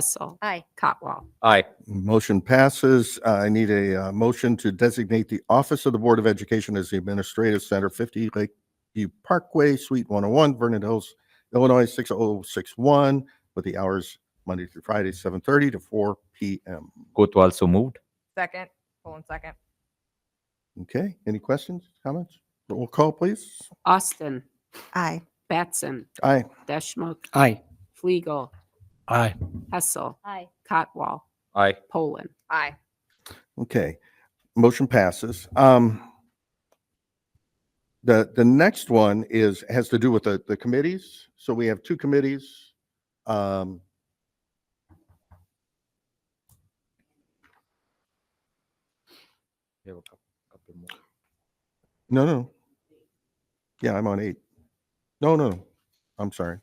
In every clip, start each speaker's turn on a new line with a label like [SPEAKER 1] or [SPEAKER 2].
[SPEAKER 1] Hessel.
[SPEAKER 2] Aye.
[SPEAKER 1] Cotwall.
[SPEAKER 3] Aye.
[SPEAKER 4] Motion passes. Uh, I need a uh, motion to designate the Office of the Board of Education as the Administrative Center, 50 Lakeview Parkway, Suite 101, Vernon Hills, Illinois, 60061, with the hours Monday through Friday, 7:30 to 4 PM.
[SPEAKER 3] Kotwal so moved.
[SPEAKER 5] Second, Poland second.
[SPEAKER 4] Okay, any questions, comments? Roll call, please.
[SPEAKER 1] Austin.
[SPEAKER 2] Aye.
[SPEAKER 1] Batson.
[SPEAKER 4] Aye.
[SPEAKER 1] Deschmok.
[SPEAKER 6] Aye.
[SPEAKER 1] Fliegel.
[SPEAKER 6] Aye.
[SPEAKER 1] Hessel.
[SPEAKER 2] Aye.
[SPEAKER 1] Cotwall.
[SPEAKER 3] Aye.
[SPEAKER 1] Poland.
[SPEAKER 5] Aye.
[SPEAKER 4] Okay, motion passes. Um, the, the next one is, has to do with the, the committees. So we have two committees. Um, no, no. Yeah, I'm on eight. No, no, no. I'm sorry.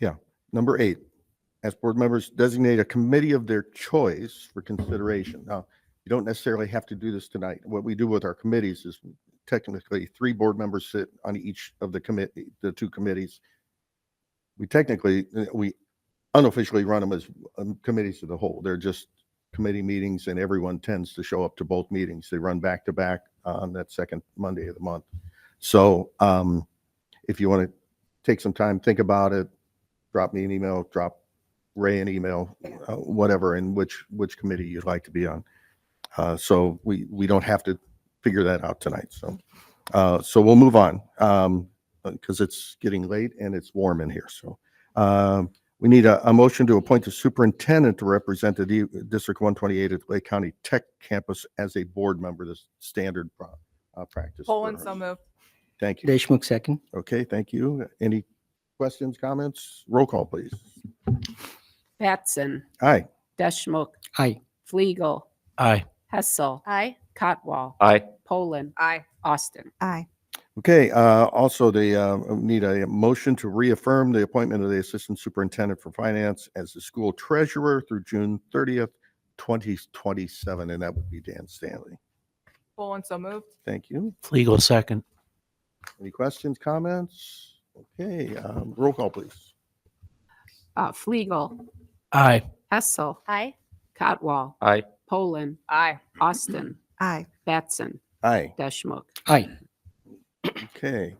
[SPEAKER 4] Yeah, number eight. As board members designate a committee of their choice for consideration. Now, you don't necessarily have to do this tonight. What we do with our committees is technically three board members sit on each of the commit, the two committees. We technically, uh, we unofficially run them as um, committees of the whole. They're just committee meetings and everyone tends to show up to both meetings. They run back to back on that second Monday of the month. So um, if you want to take some time, think about it, drop me an email, drop Ray an email, uh, whatever, and which, which committee you'd like to be on. Uh, So we, we don't have to figure that out tonight, so. uh, So we'll move on, because it's getting late and it's warm in here, so. um, We need a, a motion to appoint the superintendent to represent the D- District 128 at Lake County Tech Campus as a board member, the standard pro- uh, practice. for
[SPEAKER 5] Poland
[SPEAKER 4] us.
[SPEAKER 5] so moved.
[SPEAKER 4] Thank you.
[SPEAKER 6] Deshmukh second.
[SPEAKER 4] Okay, thank you. Any questions, comments? Roll call, please.
[SPEAKER 1] Batson.
[SPEAKER 4] Aye.
[SPEAKER 1] Deschmok.
[SPEAKER 6] Aye.
[SPEAKER 1] Fliegel.
[SPEAKER 6] Aye.
[SPEAKER 1] Hessel.
[SPEAKER 2] Aye.
[SPEAKER 1] Cotwall.
[SPEAKER 3] Aye.
[SPEAKER 1] Poland.
[SPEAKER 5] Aye.
[SPEAKER 1] Austin.
[SPEAKER 2] Aye.
[SPEAKER 4] Okay, uh, also the, uh, need a motion to reaffirm the appointment of the Assistant Superintendent for Finance as the school treasurer through June thirtieth, twenty twenty-seven, and that would be Dan Stanley.
[SPEAKER 5] Poland so moved.
[SPEAKER 4] Thank you.
[SPEAKER 6] Legal second.
[SPEAKER 4] Any questions, comments? Okay, um, roll call, please.
[SPEAKER 1] Uh, Fliegel.
[SPEAKER 6] Aye.
[SPEAKER 1] Hessel.
[SPEAKER 2] Aye.
[SPEAKER 1] Cotwall.
[SPEAKER 3] Aye.
[SPEAKER 1] Poland.
[SPEAKER 5] Aye.
[SPEAKER 1] Austin.
[SPEAKER 2] Aye.
[SPEAKER 1] Batson.
[SPEAKER 4] Aye,
[SPEAKER 1] Deschmok.
[SPEAKER 6] Aye.
[SPEAKER 4] okay.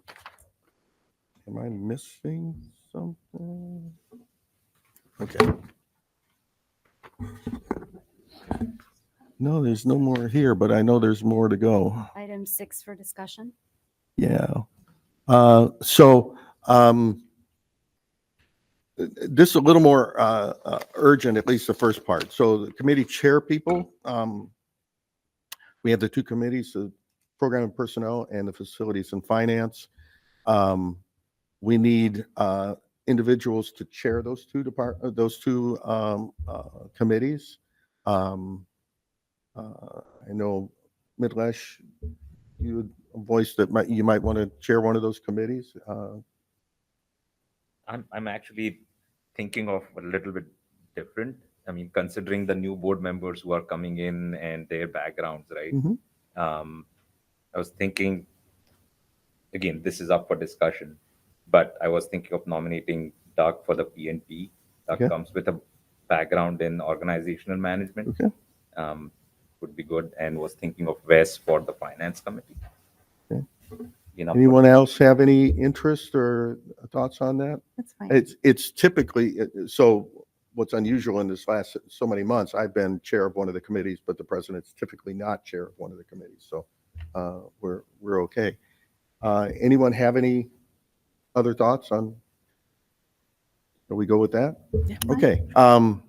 [SPEAKER 4] Am I missing something? Okay. No, there's no more here, but I know there's more to go.
[SPEAKER 2] Item six for discussion.
[SPEAKER 4] Yeah. Uh, So um, this is a little more uh, uh, urgent, at least the first part. So the committee chair people, um, we have the two committees, the program and personnel and the facilities and finance. Um, We need uh, individuals to chair those two depart, uh, those two um, uh, committees. Um, uh, I know Midlesh, you had a voice that might, you might want to chair one of those committees. Uh,
[SPEAKER 7] I'm, I'm actually thinking of a little bit different. I mean, considering the new board members who are coming in and their backgrounds, right?
[SPEAKER 4] Mhm.
[SPEAKER 7] Um, I was thinking, again, this is up for discussion, but I was thinking of nominating Doug for the PNP. Doug
[SPEAKER 4] Okay.
[SPEAKER 7] comes with a background in organizational management.
[SPEAKER 4] Okay.
[SPEAKER 7] Um, would be good, and was thinking of Wes for the finance committee.
[SPEAKER 4] Okay.
[SPEAKER 7] You know,
[SPEAKER 4] Anyone else have any interest or thoughts on that?
[SPEAKER 2] That's fine.
[SPEAKER 4] It's, it's typically, uh, so what's unusual in this last so many months, I've been chair of one of the committees, but the president's typically not chair of one of the committees. So uh, we're, we're okay. Uh, Anyone have any other thoughts on? Can we go with that? Okay, um,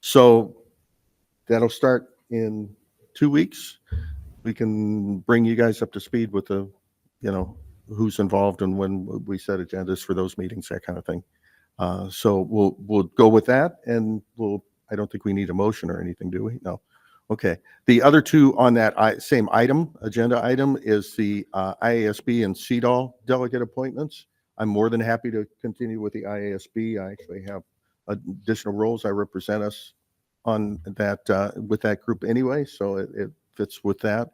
[SPEAKER 4] so that'll start in two weeks. We can bring you guys up to speed with the, you know, who's involved and when we set agendas for those meetings, that kind of thing. Uh, so we'll, we'll go with that and we'll, I don't think we need a motion or anything, do we? No. Okay. The other two on that i- same item, agenda item is the, uh, IASB and CEDAW delegate appointments. I'm more than happy to continue with the IASB. I actually have additional roles. I represent us on that, uh, with that group anyway, so it, it fits with that.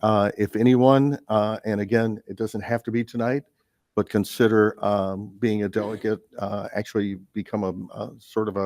[SPEAKER 4] Uh, if anyone, uh, and again, it doesn't have to be tonight, but consider um, being a delegate, uh, actually become a- a sort of a